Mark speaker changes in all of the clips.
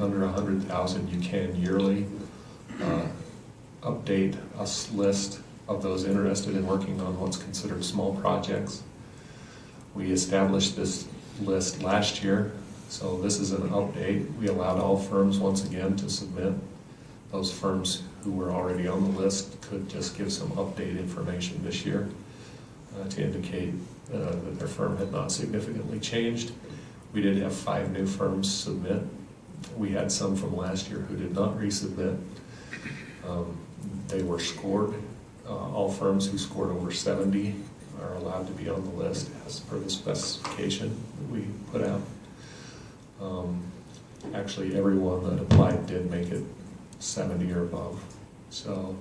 Speaker 1: under a hundred thousand, you can yearly uh, update a s- list of those interested in working on what's considered small projects. We established this list last year, so this is an update. We allowed all firms once again to submit. Those firms who were already on the list could just give some update information this year uh, to indicate uh, that their firm had not significantly changed. We did have five new firms submit. We had some from last year who did not resubmit. Um, They were scored. Uh, All firms who scored over 70 are allowed to be on the list as per the specification that we put out. Um, Actually, everyone that applied did make it 70 or above. So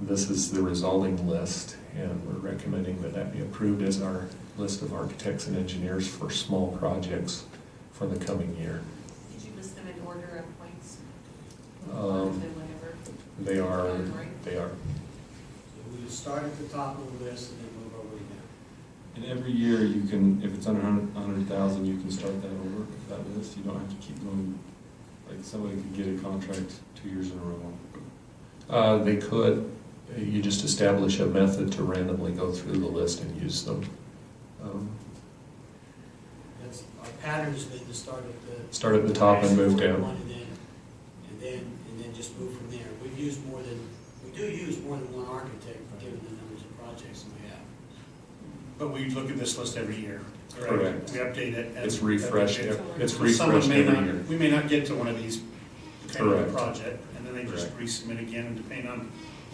Speaker 1: this is the resulting list, and we're recommending that that be approved as our list of architects and engineers for small projects for the coming year.
Speaker 2: Did you list them in order of points?
Speaker 1: Um,
Speaker 2: Or whatever?
Speaker 1: They are, they are
Speaker 3: So we start at the top of the list and then move our way down.
Speaker 4: And every year you can, if it's under a hundred thousand, you can start that over, that list, you don't have to keep going. Like somebody could get a contract two years in a row.
Speaker 1: Uh, They could, you just establish a method to randomly go through the list and use them. Um,
Speaker 3: That's, our pattern's been to start at the.
Speaker 1: Start at the top and move down.
Speaker 3: One And then, and then, and then just move from there. We've used more than, we do use more than one architect, given the numbers of projects that we have.
Speaker 5: But we look at this list every year,
Speaker 1: Correct.
Speaker 5: correct? We update it. as-
Speaker 1: It's refreshed,
Speaker 5: as we
Speaker 1: ev-
Speaker 5: get-
Speaker 1: it's
Speaker 5: Someone
Speaker 1: refreshed
Speaker 5: may
Speaker 1: every
Speaker 5: not-
Speaker 1: year.
Speaker 5: We may not get to one of these, depending on the
Speaker 1: Correct.
Speaker 5: project, and then they just
Speaker 1: Correct.
Speaker 5: resubmit again, and depending on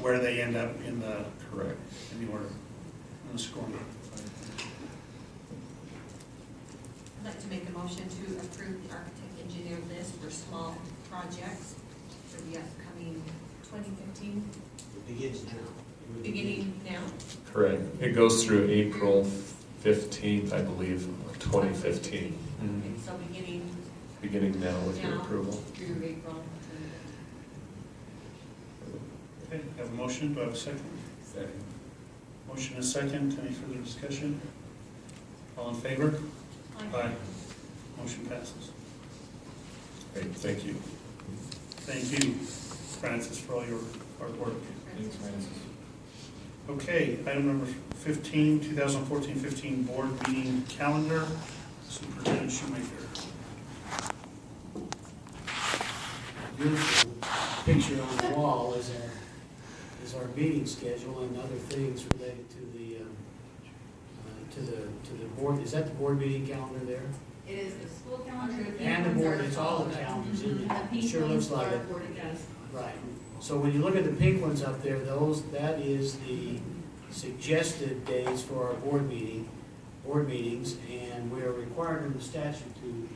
Speaker 5: where they end up in the,
Speaker 1: Correct.
Speaker 5: in the order, in the scoring.
Speaker 2: I'd like to make a motion to approve the architect engineer list for small projects for the upcoming 2015,
Speaker 3: It begins now.
Speaker 2: beginning now.
Speaker 1: Correct. It goes through April 15th, I believe, of 2015,
Speaker 2: Okay, so beginning
Speaker 1: beginning now with your
Speaker 2: now
Speaker 1: approval.
Speaker 2: through April.
Speaker 5: Okay, have a motion, do I have a second? Motion is second, any further discussion? All in favor? Aye. Motion passes.
Speaker 1: Great, thank you.
Speaker 5: Thank you, Francis, for all your hard work.
Speaker 4: Thanks, Francis.
Speaker 5: Okay, item number 15, 2014-15 Board Meeting Calendar, Superintendent Shoemaker.
Speaker 3: beautiful picture on the wall is our, is our meeting schedule and other things related to the, um, uh, to the, to the board. Is that the board meeting calendar there?
Speaker 6: It is the school calendar.
Speaker 3: And the board, it's all the calendars, isn't
Speaker 6: The
Speaker 3: it?
Speaker 6: pink
Speaker 3: Sure looks
Speaker 6: ones
Speaker 3: like
Speaker 6: are
Speaker 3: it.
Speaker 6: board meetings.
Speaker 3: Right. So when you look at the pink ones up there, those, that is the suggested days for our board meeting, board meetings, and we are required under the statute to,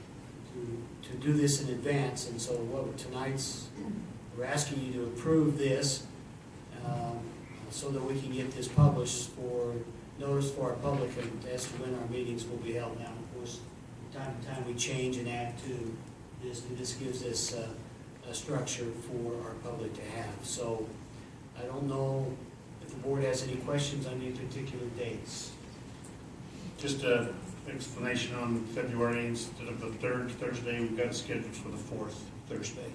Speaker 3: to, to do this in advance, and so what, tonight's, we're asking you to approve this, um, so that we can get this published for, notice for our public and as to when our meetings will be held now. Of course, from time to time, we change and add to this, and this gives us, uh, a structure for our public to have. So I don't know if the board has any questions on any particular dates.
Speaker 5: Just an explanation on February, instead of the third Thursday, we've got it scheduled for the fourth Thursday.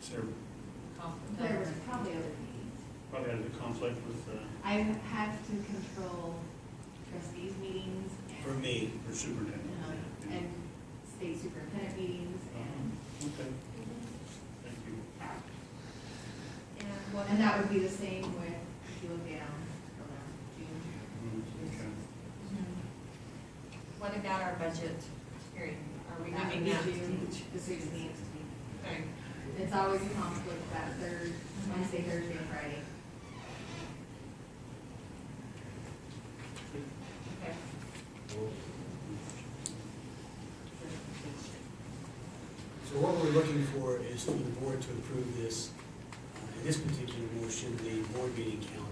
Speaker 5: Is there
Speaker 6: There were probably other meetings.
Speaker 5: probably had a conflict with, uh,
Speaker 6: I have to control trustees meetings. and,
Speaker 3: For me,
Speaker 5: or superintendent?
Speaker 6: um, And state superintendent meetings and,
Speaker 5: Uh-huh. Okay, thank you.
Speaker 2: And what
Speaker 6: and that would be the same with, if you look down around June.
Speaker 5: Mm, Okay.
Speaker 2: Mm-hmm. What about our budget hearing? Are we
Speaker 6: That would
Speaker 2: giving
Speaker 6: be
Speaker 2: that?
Speaker 6: June, the sixteenth.
Speaker 2: Okay.
Speaker 6: It's always a conflict that third, Wednesday, Thursday, and Friday.
Speaker 2: Okay.
Speaker 3: So what we're looking for is for the board to approve this, uh, in this particular motion, the board meeting calendar.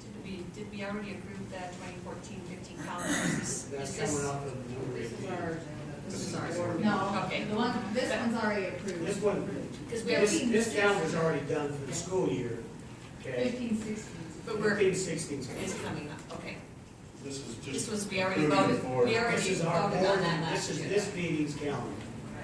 Speaker 2: Did we, did we already approve the 2014-15 calendar? Is
Speaker 3: That's
Speaker 2: this-
Speaker 3: coming up in the number
Speaker 6: This is our
Speaker 3: eighteen.
Speaker 6: agenda.
Speaker 2: This is ours.
Speaker 6: No,
Speaker 2: Okay.
Speaker 6: the one, this one's already approved.
Speaker 3: This one,
Speaker 2: Because we
Speaker 3: this,
Speaker 2: already,
Speaker 3: this calendar's already done for the school year, okay?
Speaker 6: Fifteen, sixteen.
Speaker 2: But we're-
Speaker 3: Fifteen, sixteen's coming.
Speaker 2: it's coming up, okay.
Speaker 5: This is
Speaker 2: This
Speaker 5: just,
Speaker 2: was, we already
Speaker 5: Moving
Speaker 2: voted,
Speaker 5: forward.
Speaker 2: we already
Speaker 3: This is
Speaker 2: voted
Speaker 3: our
Speaker 2: on
Speaker 3: board,
Speaker 2: that last
Speaker 3: this is
Speaker 2: year.
Speaker 3: this meeting's calendar.